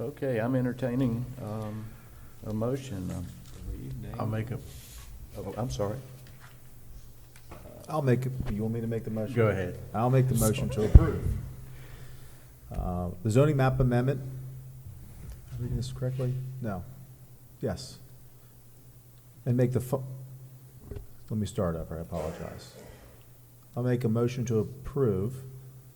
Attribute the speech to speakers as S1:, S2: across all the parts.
S1: Okay, I'm entertaining um, a motion, um,
S2: I'll make a,
S1: oh, I'm sorry.
S3: I'll make, it- you want me to make the motion?
S2: go ahead.
S3: I'll make the motion to approve. Uh, The zoning map amendment, am I reading this correctly? No. Yes. And make the, fo- let me start over, I apologize. I'll make a motion to approve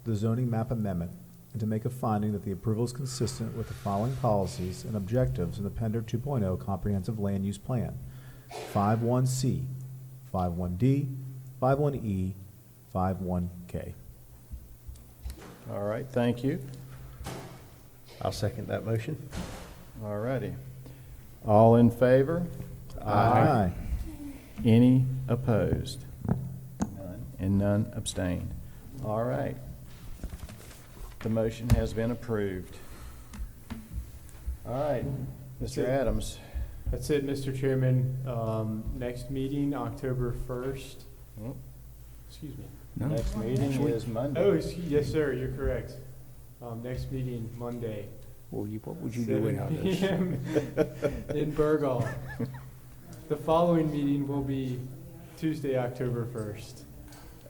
S3: the zoning map amendment and to make a finding that the approval is consistent with the following policies and objectives in the Pender 2.0 Comprehensive Land Use Plan. 51C, 51D, 51E, 51K.
S1: All right, thank you.
S2: I'll second that motion.
S1: All righty. All in favor? Any opposed? None. And none abstained. All right. The motion has been approved. All right, Mr. Adams.
S4: That's it, Mr. Chairman. Um, Next meeting, October 1st.
S1: Mm.
S4: Excuse me.
S1: Next meeting is Monday.
S4: Oh, excuse- yes, sir, you're correct. Um, Next meeting, Monday.
S5: Well, you, what would you do
S4: 7
S5: without us?
S4: p.m. In Burgal. The following meeting will be Tuesday, October 1st,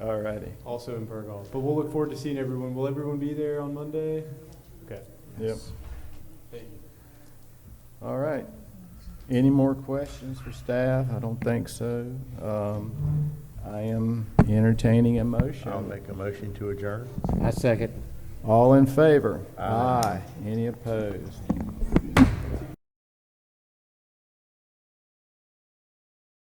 S1: All righty.
S4: also in Burgal. But we'll look forward to seeing everyone. Will everyone be there on Monday? Okay.
S1: Yep.
S4: Thank you.
S1: All right. Any more questions for staff? I don't think so. Um, I am entertaining a motion.
S2: I'll make a motion to adjourn.
S5: I second.
S1: All in favor?
S2: Aye.
S1: Any opposed?